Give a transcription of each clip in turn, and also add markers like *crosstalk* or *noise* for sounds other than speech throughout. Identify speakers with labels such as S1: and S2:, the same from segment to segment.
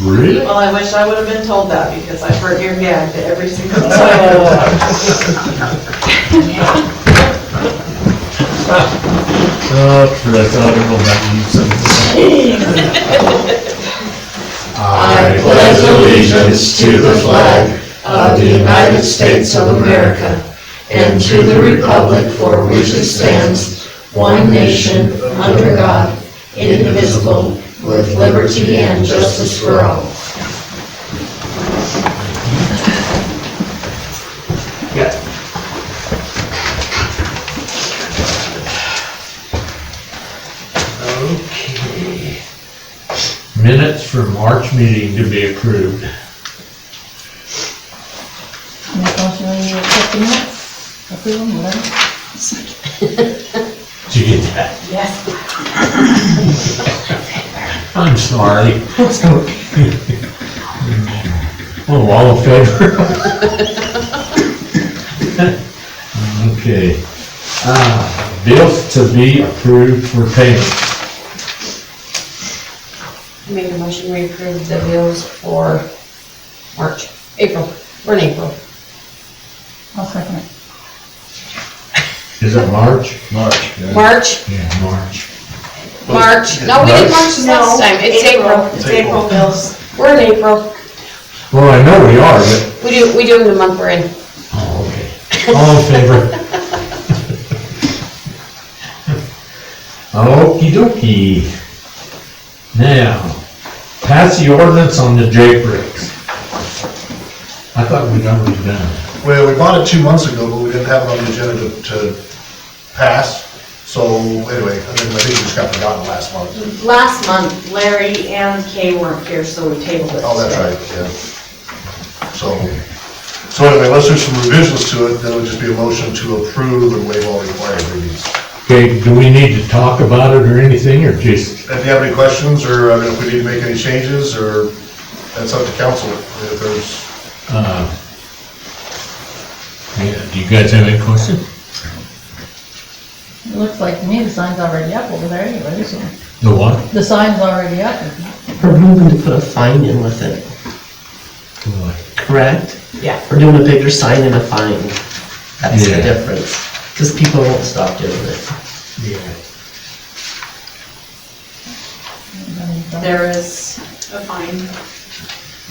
S1: Really?
S2: Well, I wish I would have been told that because I've heard your gag to every single time.
S1: Uh, for that article that you sent.
S3: I pledge allegiance to the flag of the United States of America and to the republic for which it stands, one nation, under God, indivisible, with liberty and justice for all.
S1: Okay. Minutes for March meeting to be approved.
S4: Make motion when you accept the minutes, approve them, whatever.
S1: Did you get that?
S2: Yes.
S1: I'm sorry. Oh, all in favor? Okay. Uh, Bills to be approved for payment.
S5: Make a motion, we approve the bills for March, April, we're in April.
S4: I'll second it.
S1: Is it March? March.
S6: Mm.
S5: March,
S1: Yeah, March.
S5: March, no, we did March this
S2: No,
S5: last time, it's April,
S2: It's April bills.
S5: we're in April,
S1: Well, I know we are, but,
S5: we do, we do them the month we're in.
S1: oh, okay. All in favor? *laughs* Okey dokey. Now, pass the ordinance on the J bricks. I thought we'd already done it.
S7: Well, we bought it two months ago, but we didn't have it on the agenda to- to pass. So anyway, I think I think it just got forgotten last month.
S2: Last month, Larry and Kay weren't here, so we tabled it.
S7: Oh, that's right, yeah. So, so anyway, unless there's some revisions to it, then it would just be a motion to approve and waive all required readings.
S1: Okay, do we need to talk about it or anything, or just,
S7: If you have any questions, or I mean, if we need to make any changes, or that's up to council, if there's,
S1: yeah, do you guys have any questions?
S4: It looks like to me the sign's already up over there anyway, isn't it?
S1: The what?
S4: The sign's already up. isn't it?
S8: We're moving to put a fine in with it, correct?
S5: Yeah.
S8: We're doing a bigger sign and a fine. That's the
S1: Yeah.
S8: difference, because people won't stop doing it.
S1: Yeah.
S2: There is a fine.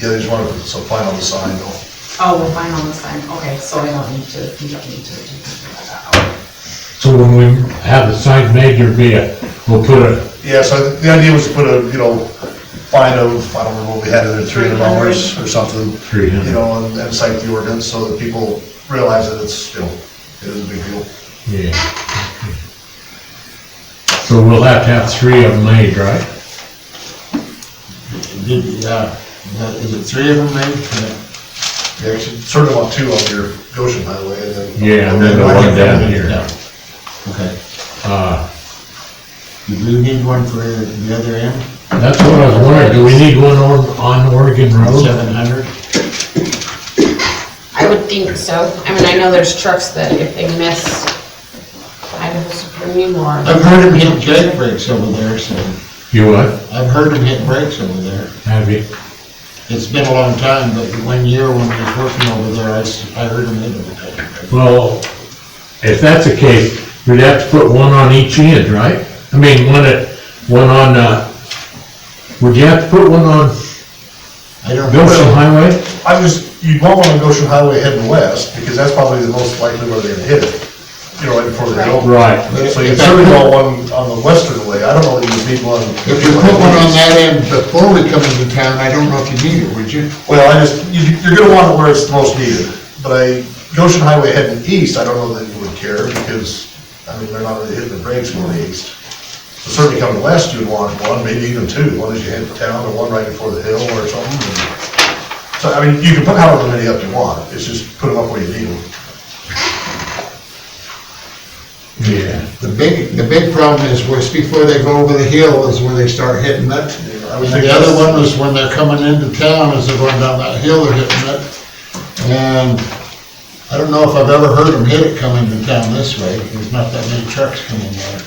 S7: yeah, they just want to, so fine on the sign, though.
S2: Oh, we're fine on the sign. Okay, so I don't need to, you don't need to.
S1: So when we have the sign made, there'll be a, we'll put a,
S7: Yeah, so the idea was to put a, you know, fine of, I don't remember what we had, either three hundred dollars or something.
S1: 300.
S7: You know, and and cite the ordinance so that people realize that it's, you know, it is a big deal.
S1: yeah. okay. So we'll have to have three of them made, right?
S6: Yeah, yeah, uh, is it three of them, maybe?
S7: You actually sort of want two on your Goshen Highway and then.
S1: Yeah, and then the one down here.
S6: Yeah. Okay.
S1: Uh,
S6: You do need one for the other end,
S1: that's what I was wondering, do we need one on, on Oregon Road?
S6: seven hundred?
S5: I would think so, I mean, I know there's trucks that if they miss Idaho Supreme or.
S6: I've heard them hit jake brakes over there, so,
S1: You what?
S6: I've heard them hit brakes over there.
S1: Have you?
S6: It's been a long time, but one year when I was working over there, I, s- I heard them hit them.
S1: Well, if that's the case, we'd have to put one on each end, right? I mean, one at, one on, uh, would you have to put one on
S6: I don't
S1: Goshen
S6: know.
S1: Highway?
S7: I just, you want one on Goshen Highway heading west because that's probably the most likely where they're gonna hit it. You know, right before they go.
S1: Right.
S7: So you certainly want one on the western way. I don't know that you need one.
S6: If you put one on that end before we come into town, I don't know if you need it, would you?
S7: Well, I just, you, you're gonna want it where it's the most needed, but I, Goshen Highway heading east, I don't know that you would care, because, I mean, they're not really hitting the brakes going east. So Certainly coming west, you'd want one, maybe even two, one as you head to town, and one right before the hill or something. and- So, I mean, you can put however many up you want, it's just put them up where you need them.
S1: Yeah.
S6: The big, the big problem is, was before they go over the hill is where they start hitting it.
S7: Yeah, I
S6: And
S7: would think
S6: the other
S7: that's-
S6: one was when they're coming into town, as they're going down that hill, they're hitting it. And I don't know if I've ever heard them hit it coming into town this way, there's not that many trucks coming there.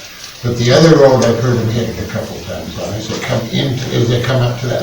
S6: But the other road, I've heard them hit it a couple times, on as they come into, as they come up to that